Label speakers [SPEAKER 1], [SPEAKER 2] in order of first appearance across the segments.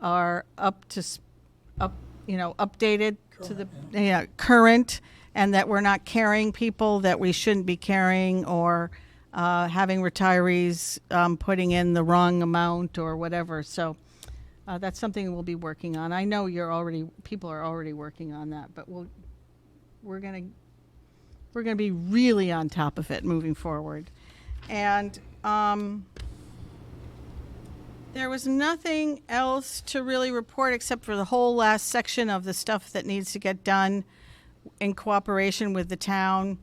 [SPEAKER 1] are up to, s- up, you know, updated to the, yeah, current, and that we're not carrying people that we shouldn't be carrying, or uh, having retirees um, putting in the wrong amount or whatever. So uh, that's something we'll be working on. I know you're already, people are already working on that, but we'll, we're gonna, we're gonna be really on top of it moving forward. And, um, there was nothing else to really report except for the whole last section of the stuff that needs to get done in cooperation with the town.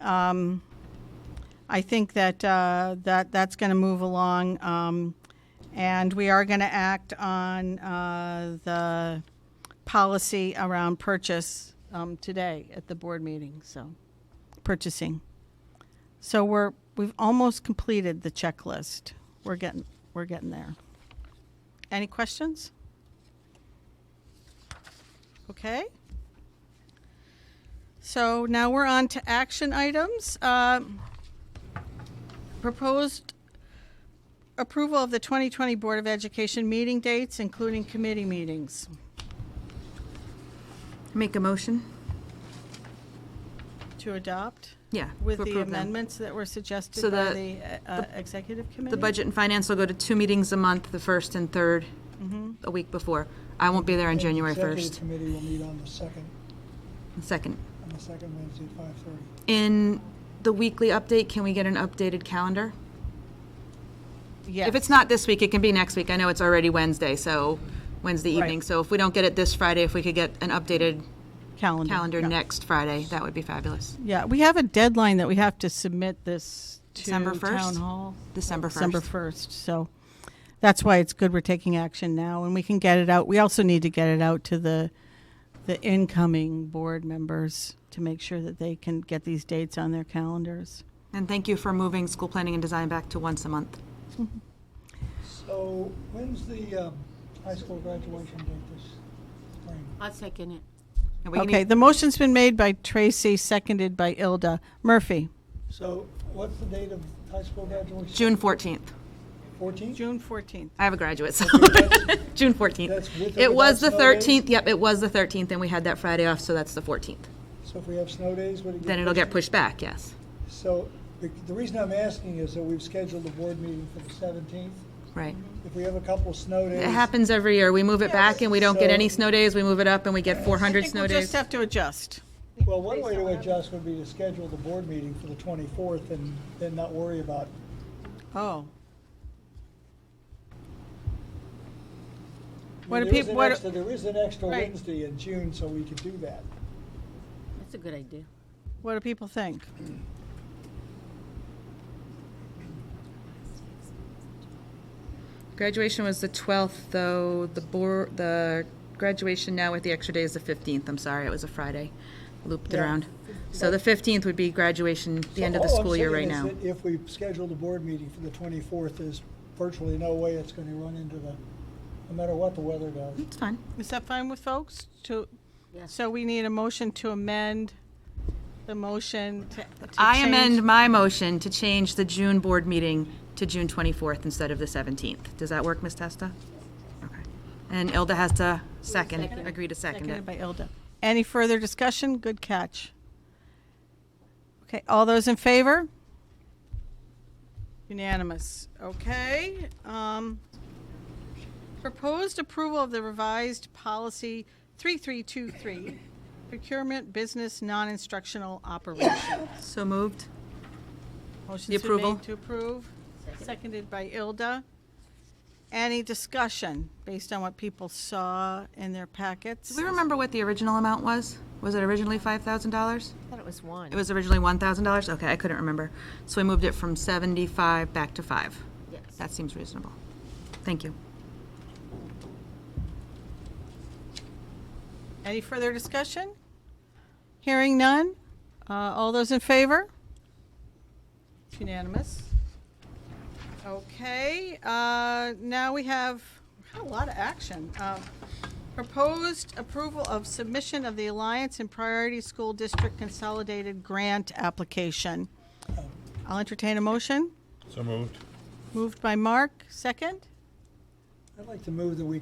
[SPEAKER 1] Um, I think that, uh, that, that's going to move along. Um, and we are going to act on, uh, the policy around purchase, um, today at the board meeting, so, purchasing. So we're, we've almost completed the checklist. We're getting, we're getting there. Any questions? Okay. So now we're on to action items. Um, Proposed approval of the 2020 Board of Education meeting dates, including committee meetings.
[SPEAKER 2] Make a motion?
[SPEAKER 1] To adopt
[SPEAKER 2] Yeah.
[SPEAKER 1] with
[SPEAKER 2] to
[SPEAKER 1] the
[SPEAKER 2] approve them.
[SPEAKER 1] amendments that were suggested
[SPEAKER 2] So
[SPEAKER 1] by
[SPEAKER 2] the-
[SPEAKER 1] the uh, executive committee?
[SPEAKER 2] The budget and finance will go to two meetings a month, the first and third,
[SPEAKER 1] Mm-hmm.
[SPEAKER 2] a week before. I won't be there on
[SPEAKER 3] And the
[SPEAKER 2] January
[SPEAKER 3] Executive
[SPEAKER 2] 1st,
[SPEAKER 3] committee will meet on the second,
[SPEAKER 2] and second.
[SPEAKER 3] on the second Wednesday at five thirty.
[SPEAKER 2] In the weekly update, can we get an updated calendar?
[SPEAKER 1] Yes.
[SPEAKER 2] If it's not this week, it can be next week. I know it's already Wednesday, so Wednesday
[SPEAKER 1] Right.
[SPEAKER 2] evening. So if we don't get it this Friday, if we could get an updated
[SPEAKER 1] calendar.
[SPEAKER 2] calendar
[SPEAKER 1] yeah.
[SPEAKER 2] next Friday, that would be fabulous.
[SPEAKER 1] Yeah, we have a deadline that we have to submit this to
[SPEAKER 2] December 1st?
[SPEAKER 1] Town Hall.
[SPEAKER 2] December
[SPEAKER 1] Uh, December
[SPEAKER 2] 1st.
[SPEAKER 1] 1st, so that's why it's good we're taking action now, and we can get it out. We also need to get it out to the, the incoming board members to make sure that they can get these dates on their calendars.
[SPEAKER 2] And thank you for moving school planning and design back to once a month.
[SPEAKER 3] So when's the um, high school graduation date this spring?
[SPEAKER 4] I'll second it.
[SPEAKER 2] And we can
[SPEAKER 1] Okay,
[SPEAKER 2] e-
[SPEAKER 1] the motion's been made by Tracy, seconded by Ilda. Murphy?
[SPEAKER 3] So what's the date of high school graduation?
[SPEAKER 2] June 14th.
[SPEAKER 3] Fourteenth?
[SPEAKER 1] June 14th.
[SPEAKER 2] I have a graduate, so
[SPEAKER 3] that's-
[SPEAKER 2] June 14th.
[SPEAKER 3] that's with or
[SPEAKER 2] It was the
[SPEAKER 3] without snow days?
[SPEAKER 2] 13th, yep, it was the 13th, and we had that Friday off, so that's the 14th.
[SPEAKER 3] So if we have snow days, would it get?
[SPEAKER 2] Then it'll get pushed back, yes.
[SPEAKER 3] So the, the reason I'm asking is that we've scheduled a board meeting for the seventeenth.
[SPEAKER 2] Right.
[SPEAKER 3] If we have a couple snow days.
[SPEAKER 2] It happens every year. We move it back and we don't get
[SPEAKER 3] so-
[SPEAKER 2] any snow days. We move it up and we get 400
[SPEAKER 1] I
[SPEAKER 2] snow
[SPEAKER 1] think we'll just
[SPEAKER 2] days.
[SPEAKER 1] have to adjust.
[SPEAKER 3] Well, one way to adjust would be to schedule the board meeting for the twenty-fourth and then not worry about
[SPEAKER 1] Oh.
[SPEAKER 3] I
[SPEAKER 1] What
[SPEAKER 3] mean,
[SPEAKER 1] do
[SPEAKER 3] there is
[SPEAKER 1] people,
[SPEAKER 3] an
[SPEAKER 1] what,
[SPEAKER 3] extra- There is an extra
[SPEAKER 1] Right.
[SPEAKER 3] Wednesday in June, so we could do that.
[SPEAKER 4] That's a good idea.
[SPEAKER 1] do- what do people think?
[SPEAKER 2] Graduation was the 12th, though. The board, the graduation now with the extra day is the 15th. I'm sorry, it was a Friday. Looped it
[SPEAKER 3] Yeah.
[SPEAKER 2] around. So the 15th would be graduation, the
[SPEAKER 3] So
[SPEAKER 2] end of the
[SPEAKER 3] all I'm
[SPEAKER 2] school year right
[SPEAKER 3] saying is
[SPEAKER 2] now.
[SPEAKER 3] that If we schedule the board meeting for the 24th, there's virtually no way it's going to run into the, no matter what the weather does.
[SPEAKER 2] It's fine.
[SPEAKER 1] Is that fine with folks? To,
[SPEAKER 4] Yes.
[SPEAKER 1] so we need a motion to amend the motion to. to
[SPEAKER 2] I
[SPEAKER 1] change-
[SPEAKER 2] amend my motion to change the June board meeting to June 24th instead of the 17th. Does that work, Ms. Testa? Okay. And Ilda has to second, agree to second it.
[SPEAKER 1] Seconded by Ilda. Any further discussion? Good catch. Okay, all those in favor? Unanimous. Okay. um, Proposed approval of the revised policy 3323, procurement business non-instructional operations.
[SPEAKER 2] So moved.
[SPEAKER 1] Motion's been
[SPEAKER 2] approval.
[SPEAKER 1] made to approve, seconded by Ilda. Any discussion based on what people saw in their packets?
[SPEAKER 2] Do we remember what the original amount was? Was it originally $5,000?
[SPEAKER 4] I thought it was one.
[SPEAKER 2] It was originally $1,000? Okay, I couldn't remember. So we moved it from 75 back to 5.
[SPEAKER 4] Yes.
[SPEAKER 2] That seems reasonable. Thank you.
[SPEAKER 1] Any further discussion? Hearing none? Uh, All those in favor? It's Unanimous. Okay, uh, now we have we had a lot of action. Um, Proposed approval of submission of the Alliance and Priority School District Consolidated Grant Application. I'll entertain a motion.
[SPEAKER 5] So moved.
[SPEAKER 1] Moved by Mark, second?
[SPEAKER 3] I'd like to move that we